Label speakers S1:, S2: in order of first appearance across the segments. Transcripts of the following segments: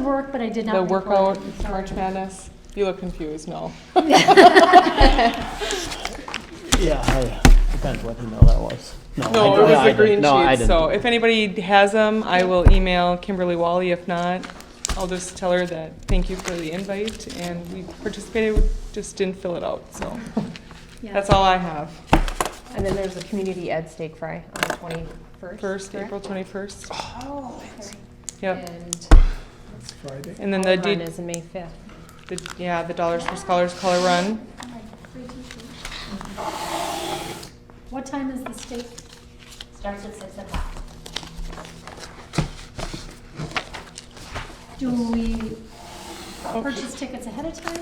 S1: work, but I did not.
S2: The
S1: report.
S2: workout,
S1: I'm sorry.
S2: March Madness, you look confused, no.
S3: Yeah, I, depends what email that was.
S2: No,
S3: I-
S2: it was
S3: I
S2: the
S3: didn't.
S2: green
S3: No, I
S2: sheet, so
S3: didn't.
S2: if anybody has them, I will email Kimberly Wally. If not, I'll just tell her that, thank you for the invite, and we participated, we just didn't fill it out, so.
S1: Yeah.
S2: That's all I have.
S4: And then there's a community ed steak fry on the twenty-first.
S2: First, April twenty-first,
S4: Oh.
S2: yep.
S4: And
S5: Friday.
S2: And then the,
S4: our
S2: D-
S4: run is May fifth.
S2: the- yeah, the Dollars for Scholars Color Run,
S1: What time is the state?
S6: Starts at six o'clock.
S1: Do we purchase tickets ahead of time?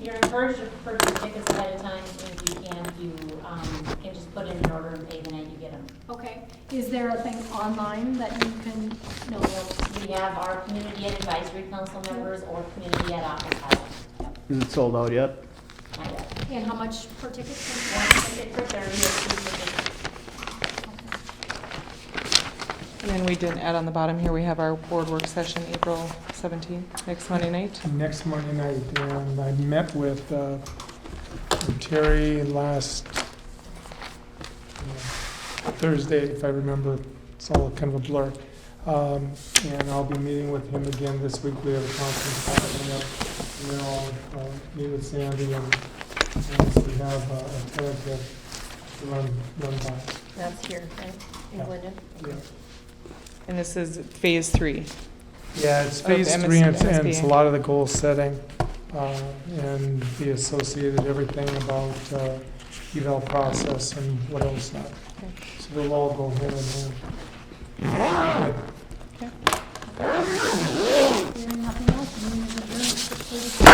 S6: You're encouraged to purchase tickets ahead of time, and if you can, you um, can just put in an order and pay the night you get them.
S1: Okay. Is there a thing online that you can, no,
S6: We have our community and advisory council members or community at office hours.
S3: Is it sold out yet?
S6: I guess.
S1: and how much per ticket?
S6: One ticket for thirty, or two tickets
S2: and then we didn't add on the bottom here, we have our board work session, April seventeenth, next Monday night.
S5: Next Monday night, and I met with uh, Terry last uh, Thursday, if I remember, it's all kind of a blur. Um, And I'll be meeting with him again this week, we have a conference call coming up, and then I'll uh, meet with Sandy, and and we have uh, a tentative to run, run by.
S4: That's here, right, in
S5: Yeah.
S4: Glendon.
S5: Yeah.
S2: And this is phase three.
S5: Yeah, it's
S2: Of
S5: phase
S2: MS
S5: three, and it's- and it's a
S2: MSBA.
S5: lot of the goal setting, uh, and the associated everything about, uh, eval process and what else not. So they'll all go hand in hand.
S1: Hearing nothing else, meeting is adjourned at 6:32.